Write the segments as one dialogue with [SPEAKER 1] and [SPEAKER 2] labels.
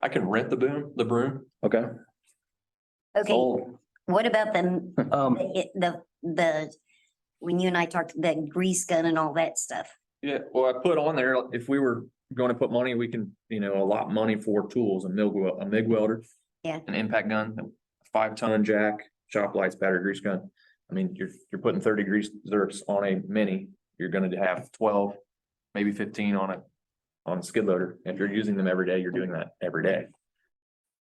[SPEAKER 1] I can rent the boom, the broom.
[SPEAKER 2] Okay.
[SPEAKER 3] Okay,
[SPEAKER 1] Oh,
[SPEAKER 3] what about the,
[SPEAKER 4] Um,
[SPEAKER 3] the- the, the, when you and I talked, the grease gun and all that stuff?
[SPEAKER 1] Yeah, well, I put on there, if we were going to put money, we can, you know, allot money for tools, a MIG, wel- a MIG welder.
[SPEAKER 3] Yeah.
[SPEAKER 1] An impact gun, a five ton jack, shop lights, battery grease gun. I mean, you're, you're putting thirty grease zerks on a mini, you're gonna have twelve, maybe fifteen on a, on a skid loader. If you're using them every day, you're doing that every day.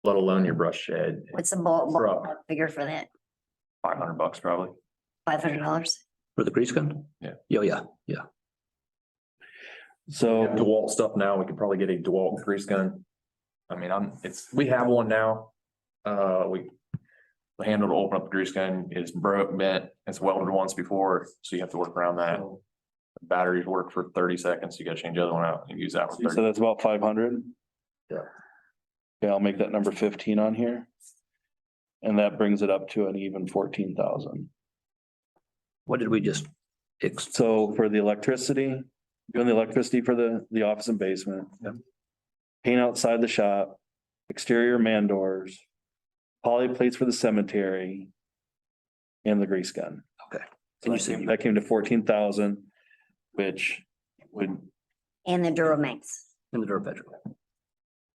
[SPEAKER 1] Let alone your brush shed,
[SPEAKER 3] What's the ball,
[SPEAKER 1] Truck.
[SPEAKER 3] ball figure for that?
[SPEAKER 1] five hundred bucks probably.
[SPEAKER 3] Five hundred dollars?
[SPEAKER 4] for the grease gun?
[SPEAKER 1] Yeah.
[SPEAKER 4] Yeah, yeah, yeah.
[SPEAKER 1] So
[SPEAKER 2] So,
[SPEAKER 1] DeWalt stuff now, we could probably get a DeWalt grease gun. I mean, I'm, it's, we have one now. Uh, we. The handle to open up the grease gun is broke, bent, it's welded once before, so you have to work around that.
[SPEAKER 2] Oh.
[SPEAKER 1] Batteries work for thirty seconds, you gotta change the other one out and use that for
[SPEAKER 2] so
[SPEAKER 1] thirty.
[SPEAKER 2] that's about five hundred?
[SPEAKER 4] Yeah.
[SPEAKER 2] Yeah, I'll make that number fifteen on here. And that brings it up to an even fourteen thousand.
[SPEAKER 4] What did we just? ex-
[SPEAKER 2] So for the electricity, doing the electricity for the, the office and basement.
[SPEAKER 4] Yep.
[SPEAKER 2] Paint outside the shop, exterior man doors, poly plates for the cemetery. And the grease gun.
[SPEAKER 4] Okay.
[SPEAKER 2] So
[SPEAKER 4] And you
[SPEAKER 2] that
[SPEAKER 4] said
[SPEAKER 2] came-
[SPEAKER 4] you-
[SPEAKER 2] that came to fourteen thousand, which would,
[SPEAKER 3] And the Duramax?
[SPEAKER 4] In the dirt bedroom.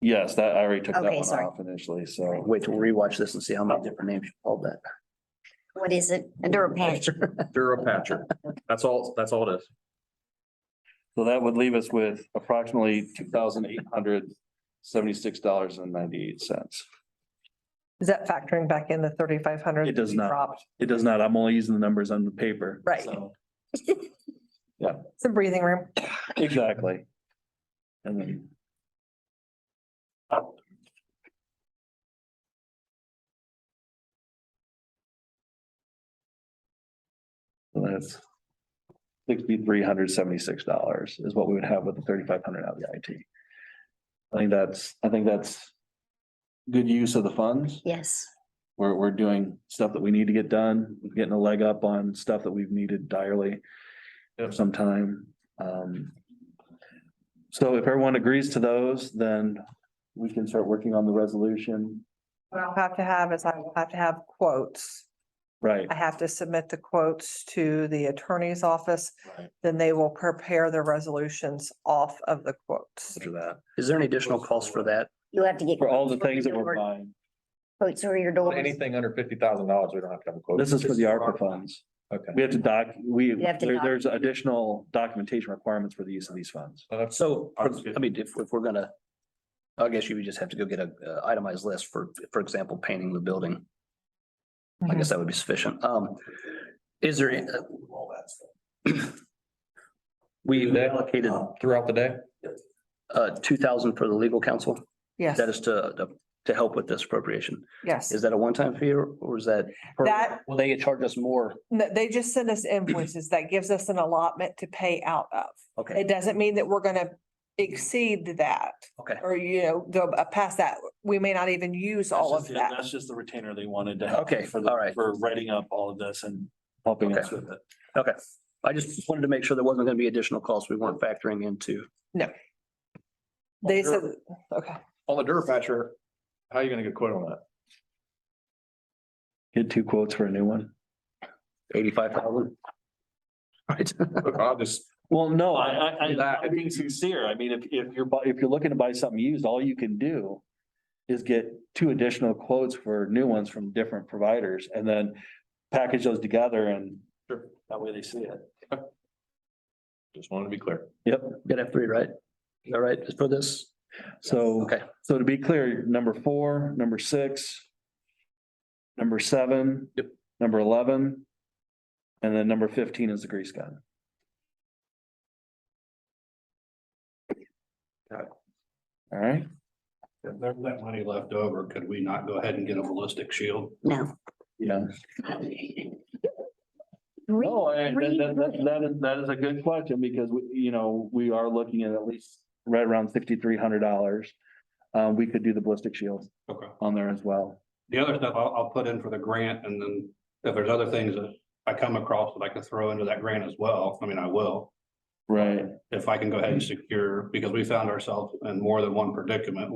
[SPEAKER 2] yes, that, I already took that
[SPEAKER 3] Okay,
[SPEAKER 2] one
[SPEAKER 3] sorry.
[SPEAKER 2] off initially, so.
[SPEAKER 4] Wait till we rewatch this and see how many different names you called that.
[SPEAKER 3] What is it? A Duramax?
[SPEAKER 1] Durapatcher, that's all, that's all it is.
[SPEAKER 2] So that would leave us with approximately two thousand eight hundred seventy-six dollars and ninety-eight cents.
[SPEAKER 5] Is that factoring back in the thirty-five hundred?
[SPEAKER 2] It does not. It does not, I'm only using the numbers on the paper.
[SPEAKER 5] Right.
[SPEAKER 2] so.
[SPEAKER 5] It's a breathing room.
[SPEAKER 2] Exactly. And then. So That's sixty-three hundred seventy-six dollars is what we would have with the thirty-five hundred out of the IT. I think that's, I think that's good use of the funds.
[SPEAKER 3] Yes.
[SPEAKER 2] We're, we're doing stuff that we need to get done, getting a leg up on stuff that we've needed direly for some time. Um, So if everyone agrees to those, then we can start working on the resolution.
[SPEAKER 5] What I'll have to have is I will have to have quotes.
[SPEAKER 2] Right,
[SPEAKER 5] I have to submit the quotes to the attorney's office.
[SPEAKER 1] Right.
[SPEAKER 5] Then they will prepare the resolutions off of the quotes.
[SPEAKER 2] after that,
[SPEAKER 4] Is there any additional cost for that?
[SPEAKER 3] You have to get.
[SPEAKER 2] for all the things that we're buying.
[SPEAKER 3] Quotes for your doors.
[SPEAKER 1] Anything under fifty thousand dollars, we don't have to have a quote.
[SPEAKER 2] This is for the ARPA funds.
[SPEAKER 1] Okay.
[SPEAKER 2] We have to doc, we,
[SPEAKER 3] You have to
[SPEAKER 2] there-
[SPEAKER 3] doc-
[SPEAKER 2] there's additional documentation requirements for the use of these funds.
[SPEAKER 1] So that's-
[SPEAKER 4] So,
[SPEAKER 1] I was good.
[SPEAKER 4] I mean, if, if we're gonna, I guess you would just have to go get a uh, itemized list for, for example, painting the building. I guess that would be sufficient. Um, is there? any- We allocated,
[SPEAKER 1] Throughout the day?
[SPEAKER 4] uh, two thousand for the legal counsel.
[SPEAKER 5] Mm-hmm. Yes,
[SPEAKER 4] That is to, to- to help with this appropriation.
[SPEAKER 5] yes.
[SPEAKER 4] Is that a one-time fee or or is that? per-
[SPEAKER 5] That-
[SPEAKER 4] Will they charge us more?
[SPEAKER 5] No, They just send us invoices. That gives us an allotment to pay out of.
[SPEAKER 4] Okay,
[SPEAKER 5] It doesn't mean that we're gonna exceed that
[SPEAKER 4] okay,
[SPEAKER 5] or, you know, go uh, past that. We may not even use all of that.
[SPEAKER 6] That's just the retainer they wanted to. have
[SPEAKER 4] okay,
[SPEAKER 6] For,
[SPEAKER 4] all
[SPEAKER 6] the
[SPEAKER 4] right.
[SPEAKER 6] for writing up all of this and
[SPEAKER 2] Helping us
[SPEAKER 6] us with it.
[SPEAKER 4] I just wanted to make sure there wasn't gonna be additional costs we weren't factoring into.
[SPEAKER 5] They said, okay.
[SPEAKER 1] On the Durapatcher, how are you gonna get a quote on that?
[SPEAKER 2] get two quotes for a new one.
[SPEAKER 4] Eighty-five thousand? Right,
[SPEAKER 1] I'll just,
[SPEAKER 2] Well, no,
[SPEAKER 6] I, I, I,
[SPEAKER 1] That-
[SPEAKER 6] I'm being sincere. I mean, if, if you're,
[SPEAKER 2] you're bu- if you're looking to buy something used, all you can do is get two additional quotes for new ones from different providers and then package those together and,
[SPEAKER 6] that way they see it.
[SPEAKER 1] just wanted to be clear.
[SPEAKER 2] yep.
[SPEAKER 4] good F three, right? All right, just for this,
[SPEAKER 2] So,
[SPEAKER 4] okay,
[SPEAKER 2] so to be clear, number four, number six, number seven.
[SPEAKER 1] Yep.
[SPEAKER 2] Number eleven. And then number fifteen is the grease gun.
[SPEAKER 1] Got it.
[SPEAKER 2] All right,
[SPEAKER 7] If there's that money left over, could we not go ahead and get a ballistic shield?
[SPEAKER 3] No.
[SPEAKER 2] yeah. No, I-
[SPEAKER 3] Read-
[SPEAKER 2] that, that,
[SPEAKER 3] read
[SPEAKER 2] that- that is, that is a good question because we, you know, we are looking at at least right around sixty-three hundred dollars. Uh, we could do the ballistic shield
[SPEAKER 7] Okay.
[SPEAKER 2] on there as well.
[SPEAKER 7] The other stuff I'll, I'll put in for the grant and then if there's other things that I come across that I could throw into that grant as well, I mean, I will.
[SPEAKER 2] Right.
[SPEAKER 7] If I can go ahead and secure, because we found ourselves in more than one predicament